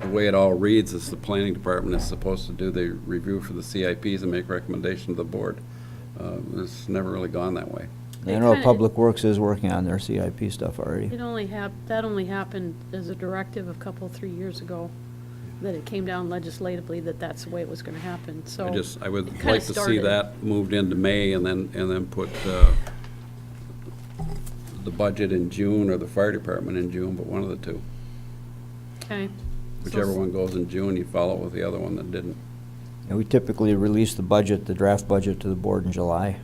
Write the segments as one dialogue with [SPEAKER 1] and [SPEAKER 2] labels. [SPEAKER 1] the way it all reads is the planning department is supposed to do the review for the CIPs and make recommendation to the board. Uh, It's never really gone that way.
[SPEAKER 2] They
[SPEAKER 3] I know
[SPEAKER 2] kinda-
[SPEAKER 3] Public Works is working on their CIP stuff already.
[SPEAKER 2] It only hap, that only happened as a directive a couple, three years ago, that it came down legislatively that that's the way it was gonna happen, so.
[SPEAKER 1] I just, I
[SPEAKER 2] it
[SPEAKER 1] would
[SPEAKER 2] kinda
[SPEAKER 1] like to see
[SPEAKER 2] started.
[SPEAKER 1] that moved into May and then, and then put uh, the budget in June or the fire department in June, but one of the two.
[SPEAKER 2] Okay.
[SPEAKER 1] Whichever one goes in June, you follow with the other one that didn't.
[SPEAKER 3] And we typically release the budget, the draft budget, to the board in July,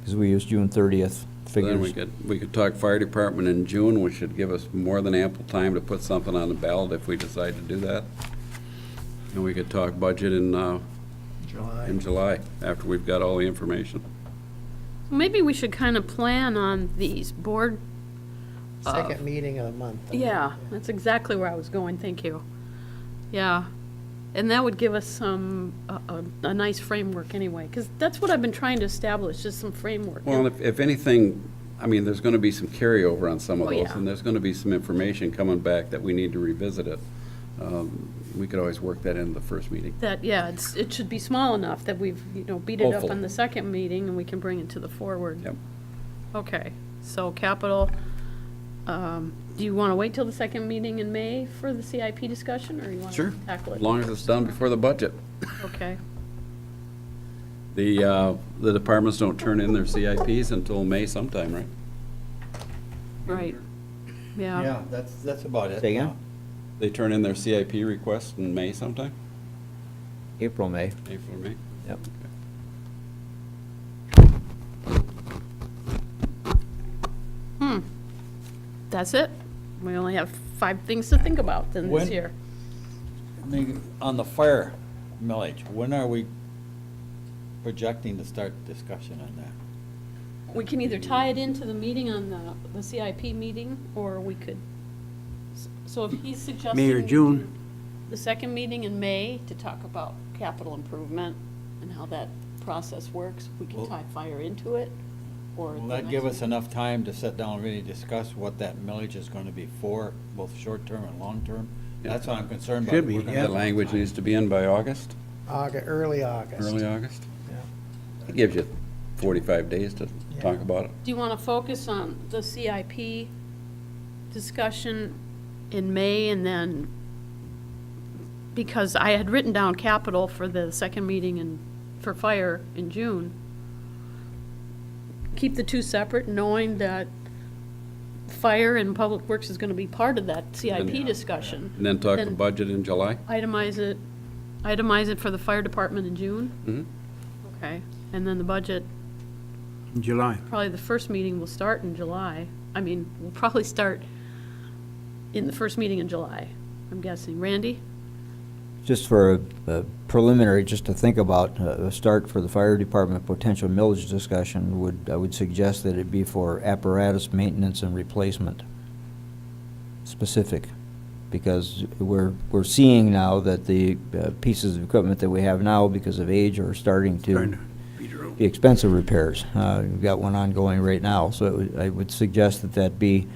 [SPEAKER 3] because we use June 30th
[SPEAKER 1] Then we
[SPEAKER 3] figures.
[SPEAKER 1] could, we could talk fire department in June, which should give us more than ample time to put something on the ballot if we decide to do that. And we could talk budget in, uh,
[SPEAKER 4] July.
[SPEAKER 1] in July, after we've got all the information.
[SPEAKER 2] Maybe we should kinda plan on these board, uh,
[SPEAKER 4] Second meeting of the month.
[SPEAKER 2] yeah, that's exactly where I was going, thank you. Yeah, and that would give us some, a, a, a nice framework anyway, cause that's what I've been trying to establish, just some framework.
[SPEAKER 1] Well, if, if anything, I mean, there's gonna be some carryover on some of
[SPEAKER 2] Oh,
[SPEAKER 1] those,
[SPEAKER 2] yeah.
[SPEAKER 1] and there's gonna be some information coming back that we need to revisit it. Um, We could always work that into the first meeting.
[SPEAKER 2] That, yeah, it's, it should be small enough that we've, you know, beat it up
[SPEAKER 1] Hopefully.
[SPEAKER 2] on the second meeting and we can bring it to the forward.
[SPEAKER 1] Yep.
[SPEAKER 2] Okay, so capital, um, do you want to wait till the second meeting in May for the CIP discussion, or you want to
[SPEAKER 1] Sure.
[SPEAKER 2] tackle it?
[SPEAKER 1] As long as it's done before the budget.
[SPEAKER 2] Okay,
[SPEAKER 1] The, uh, the departments don't turn in their CIPs until May sometime, right?
[SPEAKER 2] right, yeah.
[SPEAKER 5] Yeah, that's, that's about it.
[SPEAKER 3] Say again?
[SPEAKER 1] They turn in their CIP request in May sometime,
[SPEAKER 3] April, May.
[SPEAKER 1] April or May.
[SPEAKER 3] Yep.
[SPEAKER 2] Hmm, that's it? We only have five things to think about then this
[SPEAKER 5] When-
[SPEAKER 2] year.
[SPEAKER 5] I mean, On the fire millage, when are we projecting to start discussion on that?
[SPEAKER 2] We can either tie it into the meeting on the, the CIP meeting, or we could, so if he's suggesting.
[SPEAKER 6] May or June.
[SPEAKER 2] The second meeting in May to talk about capital improvement and how that process works, we can
[SPEAKER 5] Well-
[SPEAKER 2] tie fire into it, or.
[SPEAKER 5] Will
[SPEAKER 2] the
[SPEAKER 5] that
[SPEAKER 2] next
[SPEAKER 5] give
[SPEAKER 2] one.
[SPEAKER 5] us enough time to sit down and really discuss what that millage is gonna be for, both short-term and long-term? That's what I'm concerned about.
[SPEAKER 6] Should be,
[SPEAKER 5] We're gonna
[SPEAKER 6] yeah.
[SPEAKER 1] The
[SPEAKER 5] have
[SPEAKER 1] language
[SPEAKER 5] time.
[SPEAKER 1] needs to be in by August,
[SPEAKER 4] August, early August.
[SPEAKER 1] early August.
[SPEAKER 4] Yeah.
[SPEAKER 1] It gives you forty-five days to talk
[SPEAKER 4] Yeah.
[SPEAKER 1] about it.
[SPEAKER 2] Do you want to focus on the CIP discussion in May and then, because I had written down capital for the second meeting in, for fire in June. Keep the two separate, knowing that fire and public works is going to be part of that CIP discussion.
[SPEAKER 1] And then talk the
[SPEAKER 2] Then-
[SPEAKER 1] budget in July?
[SPEAKER 2] Itemize it, itemize it for the fire department in June?
[SPEAKER 1] Mhm.
[SPEAKER 2] Okay, and then the budget
[SPEAKER 6] In July.
[SPEAKER 2] probably the first meeting will start in July. I mean, we'll probably start in the first meeting in July, I'm guessing. Randy?
[SPEAKER 3] Just for a- a preliminary, just to think about, uh, a start for the fire department potential millage discussion would, I would suggest that it be for apparatus maintenance and replacement, specific, because we're, we're seeing now that the uh, pieces of equipment that we have now because of age are starting
[SPEAKER 6] Trying to
[SPEAKER 3] to
[SPEAKER 6] beat her
[SPEAKER 3] be expensive repairs. Uh, We've got one ongoing right now, so it would- I would suggest that that be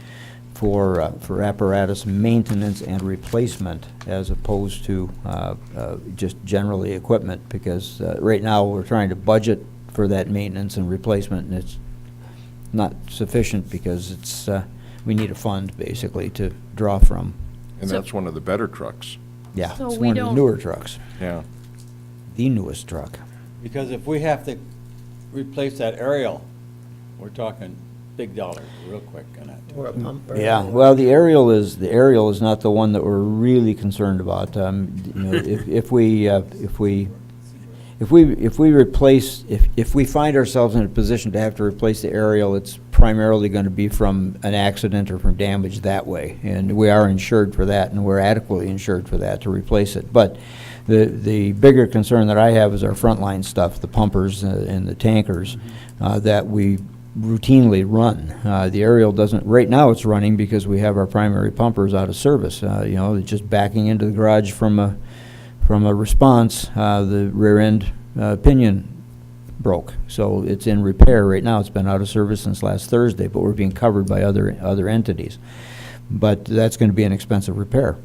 [SPEAKER 3] for, uh, for apparatus maintenance and replacement as opposed to uh, uh, just generally equipment, because uh, right now, we're trying to budget for that maintenance and replacement, and it's not sufficient because it's, uh, we need a fund basically to draw from.
[SPEAKER 7] And
[SPEAKER 2] So-
[SPEAKER 7] that's one of the better trucks,
[SPEAKER 3] Yeah,
[SPEAKER 2] So
[SPEAKER 3] it's
[SPEAKER 2] we
[SPEAKER 3] one of the
[SPEAKER 2] don't-
[SPEAKER 3] newer trucks,
[SPEAKER 7] yeah.
[SPEAKER 3] the newest truck.
[SPEAKER 5] Because if we have to replace that aerial, we're talking big dollar real quick on that.
[SPEAKER 4] Or a bumper.
[SPEAKER 3] Yeah, well, the aerial is, the aerial is not the one that we're really concerned about. Um, you know, If if we, uh, if we, if we, if we replace, if, if we find ourselves in a position to have to replace the aerial, it's primarily going to be from an accident or from damage that way. And we are insured for that, and we're adequately insured for that to replace it. But the, the bigger concern that I have is our frontline stuff, the pumpers uh, and the tankers, uh, that we routinely run. Uh, The aerial doesn't, right now it's running because we have our primary pumpers out of service. Uh, You know, it's just backing into the garage from a, from a response, uh, the rear end uh, pinion broke. So it's in repair right now. It's been out of service since last Thursday, but we're being covered by other, other entities. But that's going to be an expensive repair.